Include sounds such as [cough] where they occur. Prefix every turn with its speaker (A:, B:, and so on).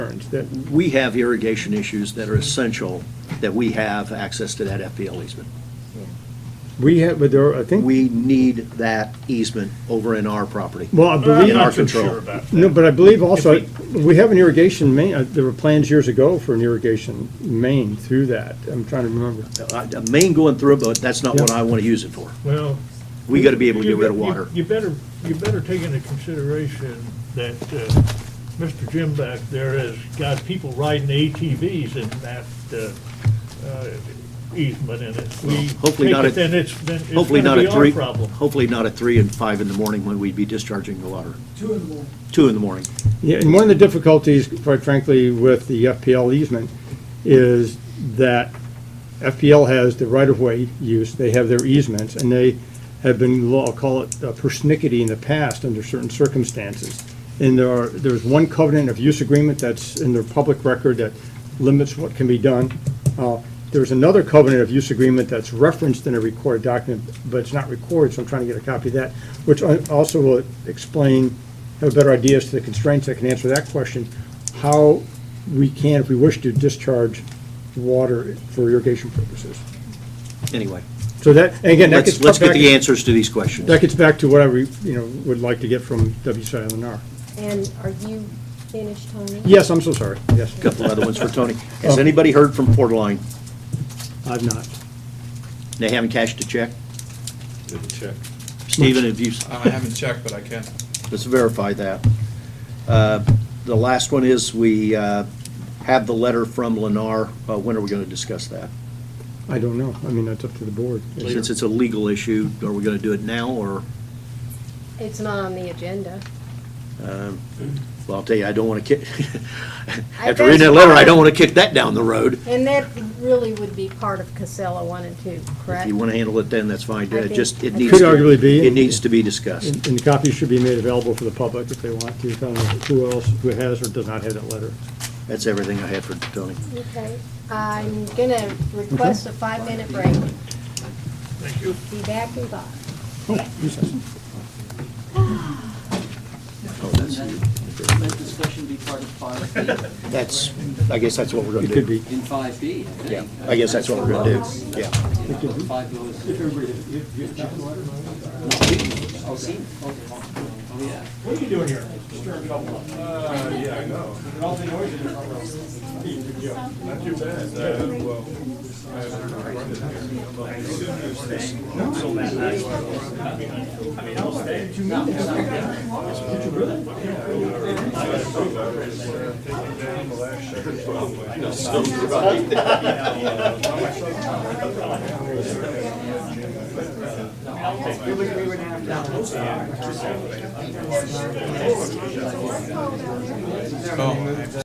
A: concerns that,
B: We have irrigation issues that are essential, that we have access to that FPL easement.
A: we have, but there, are- I think,
B: We need that easement over in our property.
A: well, I
C: Well,
A: believe.
C: I'm
B: in our
C: not so
B: control.
C: sure about that.
A: No, but I believe also,
C: If
A: we have an irrigation main, uh, there were plans years ago for an irrigation main through that. I'm trying to remember.
B: Uh, A main going through, but that's not what I want to use it for.
C: Well.
B: We got to be able to
C: you
B: get rid of
C: bet- you-
B: water.
C: You better, you better take into consideration that uh, Mr. Jim back there has got people riding ATVs in that uh, uh, easement in it. We
B: hopefully
C: take
B: not
C: it,
B: at-
C: Then it's, then it's
B: Hopefully
C: gonna
B: not
C: be
B: at
C: our
B: three,
C: problem.
B: hopefully not at three and five in the morning when we'd be discharging the water.
D: Two in the morning.
B: Two in the morning.
A: Yeah, and one of the difficulties, quite frankly, with the FPL easement is that FPL has the right-of-way use, they have their easements, and they have been, I'll call it uh, persnickety in the past under certain circumstances. And there are, there's one covenant of use agreement that's in their public record that limits what can be done. Uh, There's another covenant of use agreement that's referenced in a recorded document, but it's not recorded, so I'm trying to get a copy of that, which I- also will explain, have a better idea as to the constraints that can answer that question, how we can, if we wish to, discharge water for irrigation purposes.
B: Anyway,
A: So that, and again, that
B: let's,
A: gets.
B: let's get
A: back-
B: the answers to these questions.
A: That gets back to what I, re- you know, would like to get from WCLNR.
E: And are you finished, Tony?
A: Yes, I'm so sorry, yes.
B: Couple other ones for
C: [laughs]
B: Tony. Has anybody heard from Port Line?
A: I've not.
B: They haven't cashed a check?
F: Didn't check.
B: Stephen, have you,
F: I haven't checked, but I can.
B: let's verify that. Uh, The last one is, we uh, have the letter from Lennar. Uh, When are we going to discuss that?
A: I don't know, I mean, that's up to the board.
B: Since it's a legal issue, are we going to do it now, or,
E: It's not on the agenda.
B: well, I'll tell you, I don't want to kick, [laughs]
E: I
B: after reading that
E: guess-
B: letter, I don't want to kick that down the road.
E: And that really would be part of Casella one and two,
B: If
E: correct?
B: you want to handle it then, that's fine.
E: I
B: Uh,
E: think-
B: Just, it
E: Could
B: needs. to-
A: arguably be-
B: It needs to be discussed.
A: And and the copies should be made available for the public if they want to, I don't know who else, who has or does not have that letter.
B: That's everything I had for Tony.
E: Okay, I'm gonna request a five-minute break.
C: Thank you.
E: Be back in five.
B: Oh, that's-
D: Let discussion be part of five B,
B: That's, I guess that's what we're going to
A: It
B: do.
A: could be.
D: in five B, I think.
B: Yeah, I guess that's what we're going to do, yeah.
D: You know, Five goes. Oh, see? Okay. Oh, yeah.
F: Oh.